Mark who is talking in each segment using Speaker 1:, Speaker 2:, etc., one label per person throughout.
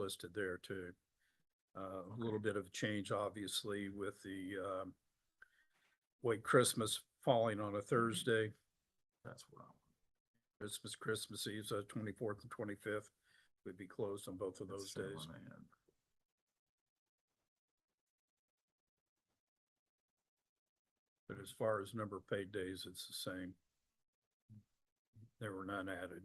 Speaker 1: listed there too. Uh, a little bit of change, obviously, with the, um, White Christmas falling on a Thursday,
Speaker 2: That's what I
Speaker 1: Christmas, Christmas Eve, so twenty-fourth and twenty-fifth would be closed on both of
Speaker 2: want.
Speaker 1: those days. But as far as number of paid days, it's the same. There were none added.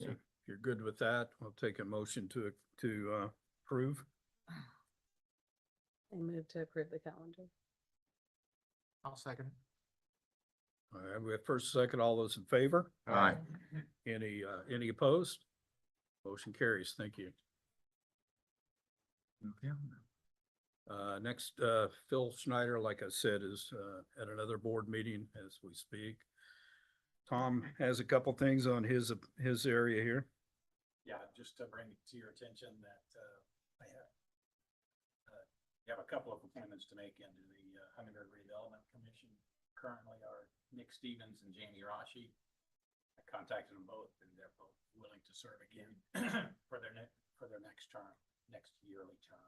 Speaker 1: So if you're good with that, I'll take a motion to, to uh, approve.
Speaker 3: I move to approve the calendar.
Speaker 4: I'll second.
Speaker 1: All right, we have first, second, all those in favor?
Speaker 2: Aye.
Speaker 1: Any, uh, any opposed? Motion carries. Thank you.
Speaker 2: Okay.
Speaker 1: Uh, next, uh, Phil Schneider, like I said, is, uh, at another board meeting as we speak. Tom has a couple things on his, his area here.
Speaker 5: Yeah, just to bring it to your attention that, uh, I have, uh, you have a couple of appointments to make into the uh, Huntingburg Redevelopment Commission. Currently are Nick Stevens and Jamie Rashi. I contacted them both and they're both willing to serve again for their ne- for their next term, next yearly term.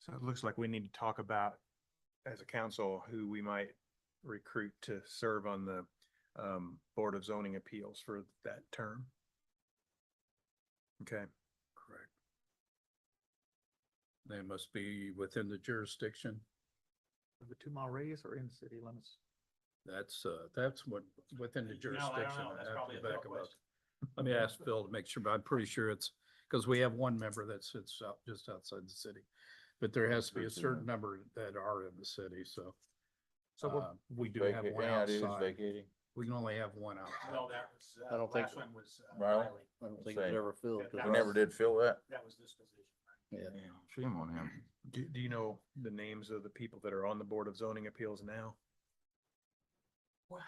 Speaker 4: So it looks like we need to talk about, as a council, who we might recruit to serve on the um, Board of Zoning Appeals for that term. Okay,
Speaker 1: Correct. They must be within the jurisdiction.
Speaker 6: The two mile radius or in city limits?
Speaker 1: That's, uh, that's what, within the
Speaker 5: You know, I don't
Speaker 1: jurisdiction.
Speaker 5: know.
Speaker 1: I'd
Speaker 5: That's
Speaker 1: have to
Speaker 5: probably a
Speaker 1: back
Speaker 5: Phil
Speaker 1: them up.
Speaker 5: question.
Speaker 1: Let me ask Phil to make sure, but I'm pretty sure it's, because we have one member that sits out, just outside the city. But there has to be a certain number that are in the city, so.
Speaker 6: So we'll-
Speaker 1: uh, We do have one outside. We can only have one outside.
Speaker 5: Well, that was,
Speaker 7: I
Speaker 5: uh,
Speaker 7: don't think
Speaker 5: last one was. uh,
Speaker 2: Riley?
Speaker 5: Riley.
Speaker 7: I don't
Speaker 2: think
Speaker 7: think
Speaker 2: it
Speaker 7: it
Speaker 2: Same.
Speaker 7: ever filled.
Speaker 5: That- 'cause
Speaker 2: We never did fill that.
Speaker 5: That was this position, right?
Speaker 2: Yeah, Shame on him.
Speaker 4: do, do you know the names of the people that are on the Board of Zoning Appeals now?
Speaker 1: Uh,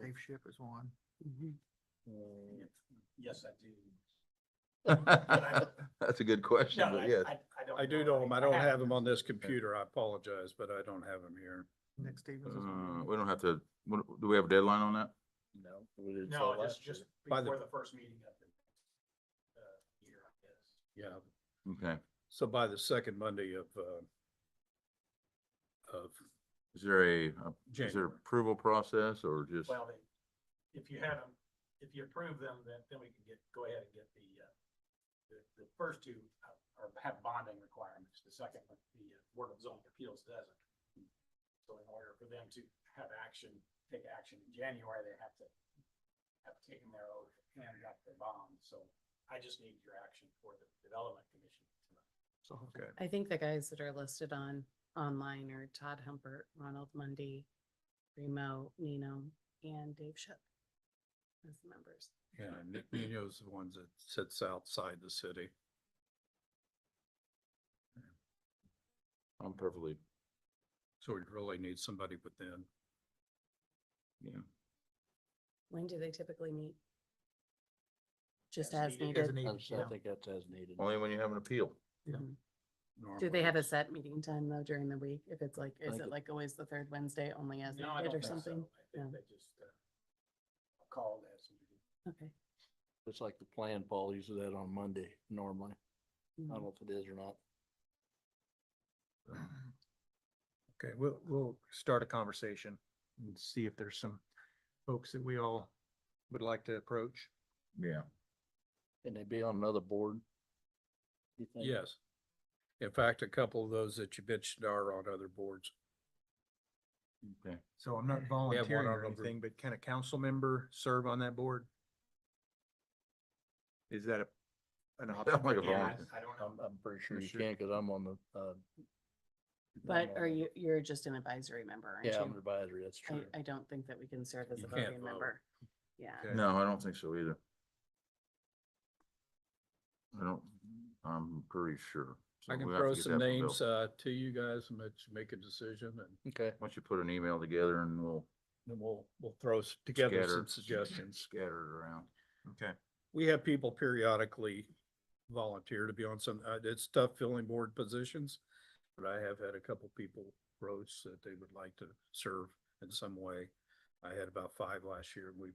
Speaker 6: Dave Ship is one.
Speaker 5: mm-hmm.
Speaker 4: Mm.
Speaker 5: Yes, I do.
Speaker 2: That's a good question,
Speaker 5: No,
Speaker 2: but
Speaker 5: I-
Speaker 2: yes.
Speaker 5: I- don't
Speaker 1: I do know him. I don't have him on this computer. I apologize, but I don't have him here.
Speaker 6: Nick Stevens is
Speaker 2: Uh,
Speaker 6: one.
Speaker 2: we don't have to, what- do we have a deadline on that?
Speaker 7: No. we didn't
Speaker 5: No,
Speaker 7: sell last
Speaker 5: just, just
Speaker 7: year.
Speaker 1: By the-
Speaker 5: before the first meeting of the uh, year, I guess.
Speaker 1: Yeah.
Speaker 2: Okay.
Speaker 1: So by the second Monday of, uh, of
Speaker 2: Is there a, uh, is
Speaker 1: January.
Speaker 2: there approval process or just?
Speaker 5: Well, they, if you have them, if you approve them, then, then we can get, go ahead and get the, uh, the, the first two uh, are, have bonding requirements. The second, one, the uh, Board of Zoning Appeals doesn't. So in order for them to have action, take action in January, they have to have taken their oath, handed up their bond. So I just need your action for the Development Commission tonight.
Speaker 4: So, okay.
Speaker 3: I think the guys that are listed on, online are Todd Humpert, Ronald Mundy, Remo, Nino, and Dave Ship. As the members.
Speaker 1: Yeah, Nick Nino's the ones that sits outside the city.
Speaker 2: I'm perfectly,
Speaker 1: So we really need somebody within.
Speaker 2: yeah.
Speaker 3: When do they typically meet? Just
Speaker 5: As
Speaker 3: as
Speaker 5: needed. As
Speaker 3: needed.
Speaker 7: I just- I think that's as needed.
Speaker 2: Only when you have an appeal.
Speaker 3: Mhm. Do
Speaker 1: normally.
Speaker 3: they have a set meeting time though during the week? If it's like, is
Speaker 7: Like-
Speaker 3: it like always the third Wednesday only as
Speaker 5: No, I
Speaker 3: needed
Speaker 5: don't
Speaker 3: or
Speaker 5: think so.
Speaker 3: something?
Speaker 5: I think
Speaker 3: No.
Speaker 5: they just, uh, called as. needed.
Speaker 3: Okay.
Speaker 7: It's like the plan, Paul uses that on Monday normally. I
Speaker 3: Mhm.
Speaker 7: don't know if it is or not.
Speaker 4: Okay, we'll, we'll start a conversation and see if there's some folks that we all would like to approach.
Speaker 2: Yeah.
Speaker 7: Can they be on another board? You think?
Speaker 1: Yes. In fact, a couple of those that you bitched are on other boards.
Speaker 2: Okay.
Speaker 4: So I'm not volunteering
Speaker 1: on
Speaker 4: or
Speaker 1: over-
Speaker 4: anything, but can a council member serve on that board? Is that a, an option?
Speaker 2: Sounds like a
Speaker 5: Yeah,
Speaker 2: volunteer.
Speaker 5: I I don't know.
Speaker 7: I'm, I'm pretty sure you
Speaker 4: Sure.
Speaker 7: can, cause I'm on the, uh.
Speaker 3: But
Speaker 7: I'm
Speaker 3: are
Speaker 7: on-
Speaker 3: you, you're just an advisory member, aren't
Speaker 7: Yeah, I'm
Speaker 3: you? Uh,
Speaker 7: advisory, that's true.
Speaker 3: I, I don't think that we can serve as
Speaker 1: You
Speaker 3: a
Speaker 1: can't
Speaker 3: voting
Speaker 1: vote.
Speaker 3: member. Yeah.
Speaker 4: Okay.
Speaker 2: No, I don't think so either. I don't, I'm pretty sure. So
Speaker 1: I can
Speaker 2: we'll have to
Speaker 1: throw
Speaker 2: get
Speaker 1: some
Speaker 2: that from Bill.
Speaker 1: names, uh, to you guys and let you make a decision and
Speaker 7: Okay,
Speaker 2: Why don't you put an email together and we'll
Speaker 1: then we'll, we'll throw s- together
Speaker 2: Scatter.
Speaker 1: some suggestions.
Speaker 2: scatter it around.
Speaker 4: Okay.
Speaker 1: We have people periodically volunteer to be on some, uh, it's tough filling board positions. But I have had a couple people approach that they would like to serve in some way. I had about five last year and we